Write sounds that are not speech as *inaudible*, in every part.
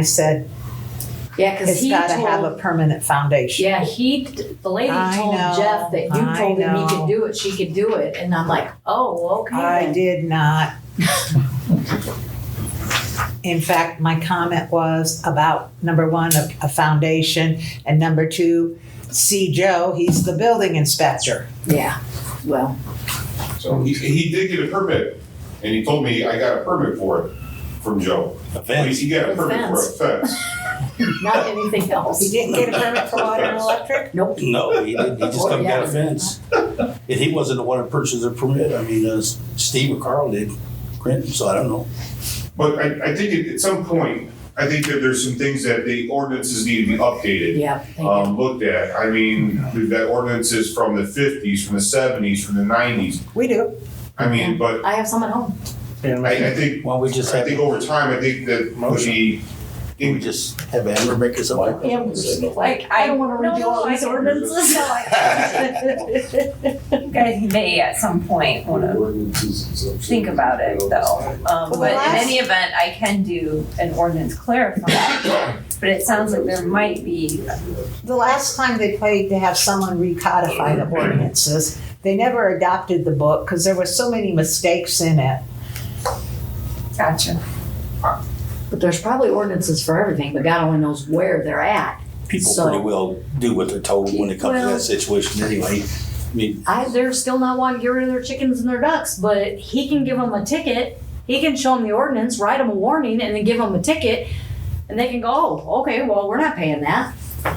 I said, Yeah, because it's he gotta have a told, permanent foundation. yeah, he, the lady I told know, Jeff that you I told him he know. could do it, she could do it, and I'm like, oh, okay. I then. did not. In fact, my comment was about number one, a, a foundation, and number two, see Joe, he's the building inspector. Yeah, well, So he, he did get a permit, and he told me I got a permit for it from Joe. He, Events. he got a For permit for a fence. fence. not anything He *laughs* else. didn't get a permit for water and electric? Nope. No, he *laughs* didn't. He just come got a Yeah. fence. And he wasn't the one that purchased the permit. I mean, uh, Steve or Carl did, Clinton, so I don't know. But I, I think at, at some point, I think that there's some things that the ordinances need to be updated, Yeah, thank you. um, looked at. I mean, we've got ordinances from the fifties, from the seventies, from the nineties. We do. I mean, but I have some at home. I, I think, Why don't we just I have, think over time, I think that would be. we just have Amber make us a Why? Amber's Like, I don't wanna read you all no, these I- ordinances. no, *laughs* I- You guys may at some point wanna think about it though. Um, Well, the but in last- any event, I can do an ordinance clarifying, but it sounds like there might be, The last time they played to have someone recodify the ordinances, they never adopted the book because there were so many mistakes in it. gotcha. But there's probably ordinances for everything, but God only knows where they're at. People So- pretty well do what they're told when it comes to Well- that situation anyway. I mean, I, they're still not wanting to get rid of their chickens and their ducks, but he can give them a ticket. He can show them the ordinance, write them a warning, and then give them a ticket. And they can go, oh, okay, well, we're not paying that. No,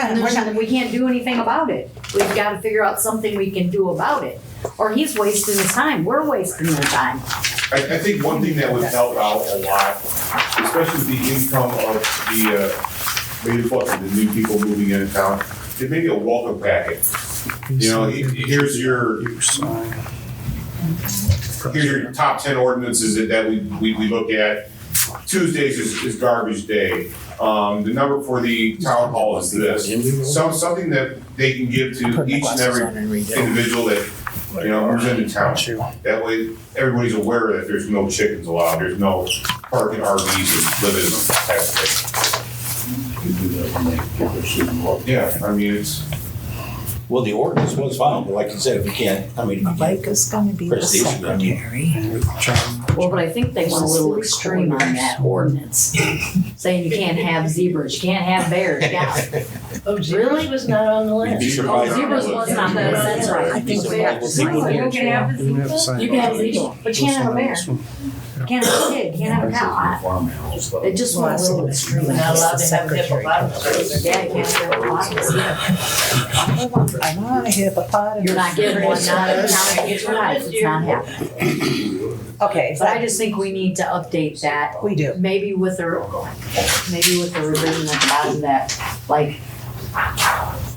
And we're there's, not- we can't do anything about it. We've got to figure out something we can do about it. Or he's wasting his time. We're wasting their time. I, I think one thing that would help out a lot, especially the income of the, uh, maybe what, the new people moving into town, is maybe a welcome packet. You know, he- here's your, here's your top ten ordinances that, that we, we, we look at. Tuesdays is, is garbage day. Um, the number for the town hall is this. Some, something that they can give to each and every individual that, you know, who's in the town. That way, everybody's aware that there's no chickens allowed, there's no parking RVs and living in them type of thing. Yeah, I mean, it's, Well, the ordinance was fine, but like you said, if you can't, I mean, if you can't is gonna be press the issue, I mean. Well, but I think they went a little extreme on that *laughs* ordinance, saying you can't have zebras, you can't have bears. *laughs* Yeah. Really? Oh, was not on the You'd be surprised. Oh, zebras was not there, that's right. You'd be I think surprised what they have people to do. You can have You have to this. sign You can have zebra, but you can't have a bear, you can't have a pig, you can't have a cow. I- It just went a little extreme. We're not allowed to have hippopotamus. Yeah, you can't have a lot. I want a hippopotamus. You're not giving one, not a cow, it's right, it's not happening. Okay, But I that, just think we need to update that we do. maybe with a, maybe with a revision at the bottom that, like,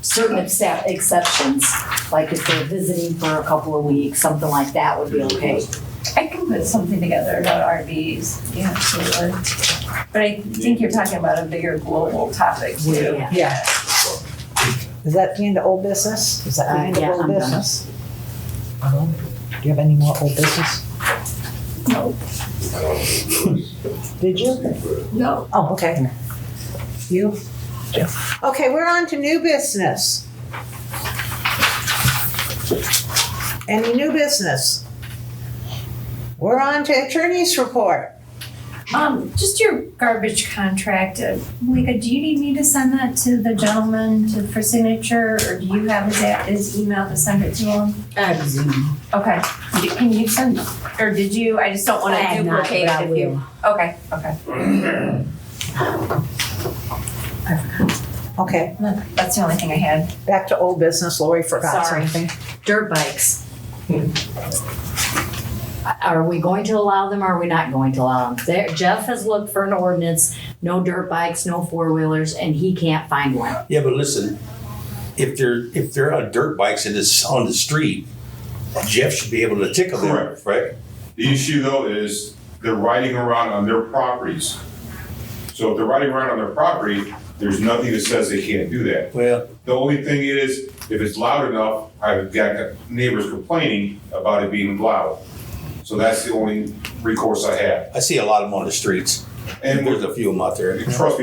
certain excep- exceptions, like if they're visiting for a couple of weeks, something like that would be okay. I can put something together about RVs, yeah, absolutely. But I think you're talking about a bigger global topic too. Yeah. Yeah. Is that the end of old business? Is that the Uh, end of yeah, old I'm done. business? Um, Do you have any more old business? No. Did you? No. Oh, okay. You? Okay, we're on to new business. Any new business? We're on to attorney's report. Um, just your garbage contract, uh, Malika, do you need me to send that to the gentleman to, for signature? Or do you have his, a- his email to send it to him? Okay, D- can you send, or did you, I just don't I wanna have not, duplicate but I it if you. will. Okay, okay, Okay, that's the only thing I had. back to old business. Lori forgot Sorry. something. Dirt bikes. Are we going to allow them, or are we not going to allow them? There, Jeff has looked for an ordinance, no dirt bikes, no four-wheelers, and he can't find one. Yeah, but listen, if they're, if they're on dirt bikes and it's on the street, Jeff should be able to tickle them, Correct. right? the issue though is they're riding around on their properties. So if they're riding around on their property, there's nothing that says they can't do that. Well, The only thing is, if it's loud enough, I've got neighbors complaining about it being loud. So that's the only recourse I have. I see a lot of them on the streets. And There's a few of them out there. trust me,